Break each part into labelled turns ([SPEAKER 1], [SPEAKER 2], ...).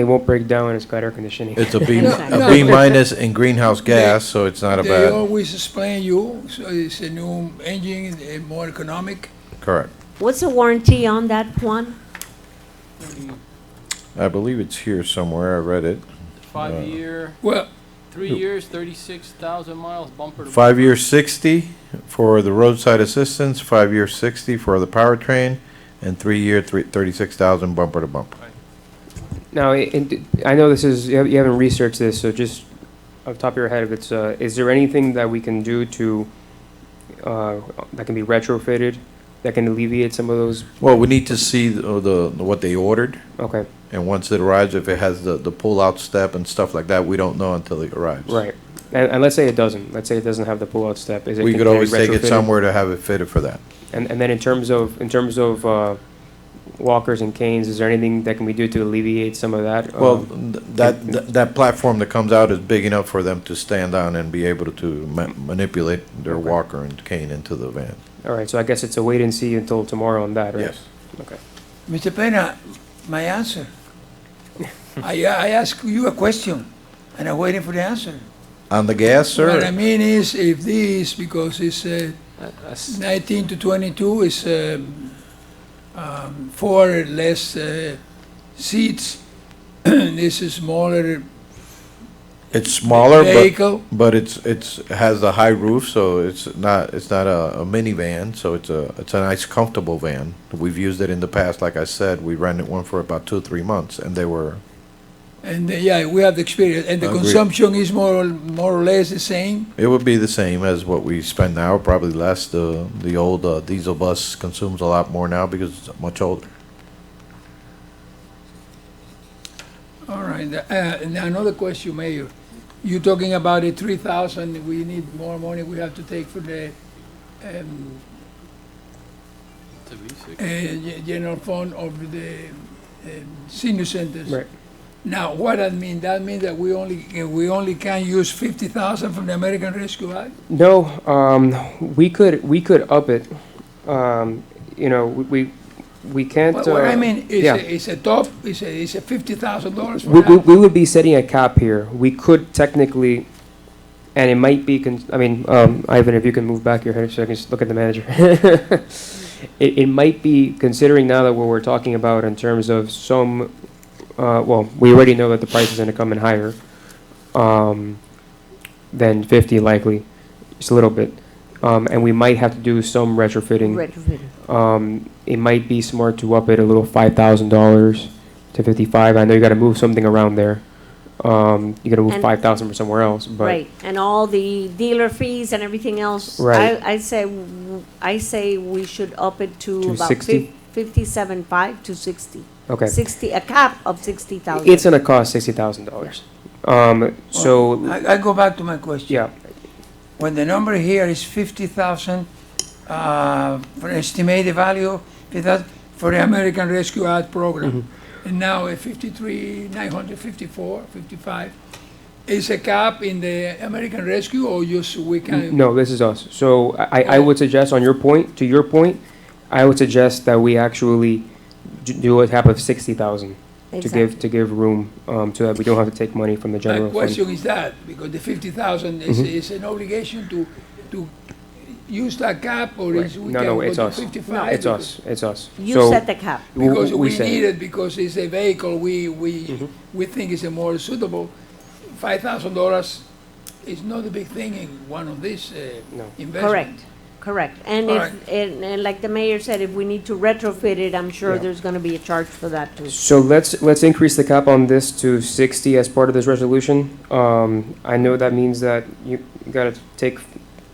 [SPEAKER 1] It won't break down when it's got air conditioning.
[SPEAKER 2] It's a B,
[SPEAKER 3] Exactly.
[SPEAKER 2] a B minus in greenhouse gas, so it's not a
[SPEAKER 4] They
[SPEAKER 2] bad,
[SPEAKER 4] always explain you, so it's a new engine, eh, more economic.
[SPEAKER 2] correct.
[SPEAKER 3] What's the warranty on that one?
[SPEAKER 2] I believe it's here somewhere, I read it.
[SPEAKER 5] Five-year,
[SPEAKER 4] Well,
[SPEAKER 5] three years, thirty-six thousand miles bumper to.
[SPEAKER 2] Five-year sixty for the roadside assistance, five-year sixty for the powertrain, and three-year three, thirty-six thousand bumper to bumper.
[SPEAKER 1] Now, i- and d- I know this is, you hav- you haven't researched this, so just off the top of your head, if it's, uh, is there anything that we can do to, uh, that can be retrofitted, that can alleviate some of those?
[SPEAKER 2] Well, we need to see the, uh, the, what they ordered,
[SPEAKER 1] Okay,
[SPEAKER 2] and once it arrives, if it has the, the pull-out step and stuff like that, we don't know until it arrives.
[SPEAKER 1] right. And, and let's say it doesn't, let's say it doesn't have the pull-out step, is it?
[SPEAKER 2] We
[SPEAKER 1] can-
[SPEAKER 2] could
[SPEAKER 1] can
[SPEAKER 2] always take it
[SPEAKER 1] retrofitted?
[SPEAKER 2] somewhere to have it fitted for that.
[SPEAKER 1] And, and then in terms of, in terms of, uh, walkers and canes, is there anything that can we do to alleviate some of that?
[SPEAKER 2] Well,
[SPEAKER 1] Um,
[SPEAKER 2] th- that, th- that platform that comes out is big enough for them to stand on and be able to ma- manipulate their
[SPEAKER 1] Okay.
[SPEAKER 2] walker and cane into the van.
[SPEAKER 1] All right, so I guess it's a wait and see until tomorrow on that, right? Okay.
[SPEAKER 4] Mr. Pena, my answer. I, I ask you a question, and I'm waiting for the answer.
[SPEAKER 2] On the gas,
[SPEAKER 4] What I
[SPEAKER 2] sir?
[SPEAKER 4] mean is, if this, because it's uh,
[SPEAKER 5] That's-
[SPEAKER 4] 19 to 22, is um, um, four less uh, seats, this is smaller
[SPEAKER 2] It's smaller, but,
[SPEAKER 4] vehicle.
[SPEAKER 2] but it's, it's, has a high roof, so it's not, it's not a a minivan, so it's a, it's a nice comfortable van. We've used it in the past, like I said, we rented one for about two, three months, and they were,
[SPEAKER 4] And uh, yeah, we have the experience, and the
[SPEAKER 2] Agreed.
[SPEAKER 4] consumption is more, or- more or less the same.
[SPEAKER 2] it would be the same as what we spend now, probably less. The, the old uh, diesel bus consumes a lot more now because it's much older.
[SPEAKER 4] All right, uh, and another question, Mayor. You're talking about the three thousand, we need more money we have to take for the, um,
[SPEAKER 5] to be sick.
[SPEAKER 4] uh, ge- general fund of the um, senior centers.
[SPEAKER 1] Right.
[SPEAKER 4] Now, what that mean? That mean that we only, uh, we only can use fifty thousand from the American Rescue Act?
[SPEAKER 1] No, um, we could, we could up it. Um, you know, we, we- we can't.
[SPEAKER 4] What what
[SPEAKER 1] uh,
[SPEAKER 4] I mean, is
[SPEAKER 1] yeah.
[SPEAKER 4] a, it's a top, it's a, it's a fifty thousand dollars for
[SPEAKER 1] We, we,
[SPEAKER 4] that.
[SPEAKER 1] we would be setting a cap here. We could technically, and it might be, con- I mean, um, Ivan, if you can move back your head so I can just look at the manager. It, it might be, considering now that what we're talking about in terms of some, uh, well, we already know that the price is gonna come in higher, um, than fifty likely, just a little bit. Um, and we might have to do some retrofitting
[SPEAKER 3] Retrofitted.
[SPEAKER 1] um, it might be smart to up it a little five thousand dollars to fifty-five. I know you got to move something around there. Um, you got to move
[SPEAKER 3] And-
[SPEAKER 1] five thousand from somewhere else, but
[SPEAKER 3] Right, and all the dealer fees and everything else.
[SPEAKER 1] Right.
[SPEAKER 3] I, I say, w- I say we should up it to
[SPEAKER 1] To
[SPEAKER 3] about
[SPEAKER 1] 60?
[SPEAKER 3] fifty-seven five to sixty.
[SPEAKER 1] okay,
[SPEAKER 3] Sixty, a cap of sixty thousand.
[SPEAKER 1] it's gonna cost sixty thousand dollars. Um, so
[SPEAKER 4] I, I go back to my question.
[SPEAKER 1] yeah,
[SPEAKER 4] When the number here is fifty thousand, uh, for estimated value, that, for the American Rescue Act program.
[SPEAKER 1] Mm-hmm.
[SPEAKER 4] And now at fifty-three, nine hundred fifty-four, fifty-five, is a cap in the American Rescue or just we can?
[SPEAKER 1] no, this is us. So I, I I would suggest on your point, to your point, I would suggest that we actually d- do a cap of sixty thousand to give to give room um, so that we don't have to take money from the
[SPEAKER 4] My
[SPEAKER 1] general fund.
[SPEAKER 4] question is that, because the fifty thousand is,
[SPEAKER 1] Mhm.
[SPEAKER 4] is an obligation to, to use that cap or
[SPEAKER 1] Right.
[SPEAKER 4] is we
[SPEAKER 1] No,
[SPEAKER 4] can
[SPEAKER 1] no,
[SPEAKER 4] go
[SPEAKER 1] it's
[SPEAKER 4] to
[SPEAKER 1] us.
[SPEAKER 4] fifty-five?
[SPEAKER 1] It's us. It's us.
[SPEAKER 3] You
[SPEAKER 1] So
[SPEAKER 3] set the cap.
[SPEAKER 1] w-
[SPEAKER 4] Because we
[SPEAKER 1] set it.
[SPEAKER 4] need it, because it's a vehicle, we, we,
[SPEAKER 1] Mhm.
[SPEAKER 4] we think is a more suitable. Five thousand dollars is not a big thing in one of these uh,
[SPEAKER 1] No.
[SPEAKER 4] investments.
[SPEAKER 3] Correct, correct. And
[SPEAKER 4] All
[SPEAKER 3] if, and, and like the mayor said, if we need to retrofit it, I'm sure
[SPEAKER 1] Yeah.
[SPEAKER 3] there's gonna be a charge for that too.
[SPEAKER 1] So let's, let's increase the cap on this to 60 as part of this resolution. Um, I know that means that you gotta take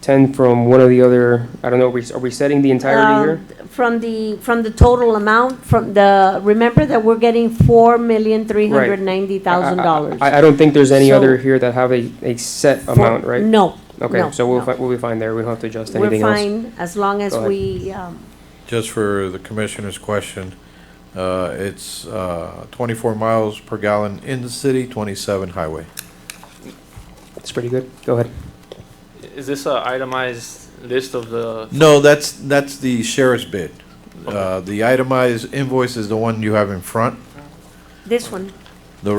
[SPEAKER 1] 10 from one of the other, I don't know, are we, are we setting the entirety here?
[SPEAKER 3] Um, From the, from the total amount, from the, remember that we're getting four million, three hundred ninety thousand dollars.
[SPEAKER 1] I, I don't think there's any
[SPEAKER 3] So-
[SPEAKER 1] other here that have a, a set amount, right?
[SPEAKER 3] No,
[SPEAKER 1] Okay,
[SPEAKER 3] no,
[SPEAKER 1] so we'll,
[SPEAKER 3] no.
[SPEAKER 1] fi- we'll be fine there, we don't have to adjust
[SPEAKER 3] we're
[SPEAKER 1] anything else.
[SPEAKER 3] fine as long as
[SPEAKER 1] Go ahead.
[SPEAKER 3] we, um,
[SPEAKER 2] Just for the commissioner's question, uh, it's, uh, twenty-four miles per gallon in the city, twenty-seven highway.
[SPEAKER 1] It's pretty good, go ahead.
[SPEAKER 5] Is this a itemized list of the?
[SPEAKER 2] No, that's, that's the sheriff's bid. Uh, the itemized invoice is the one you have in front.
[SPEAKER 3] this one,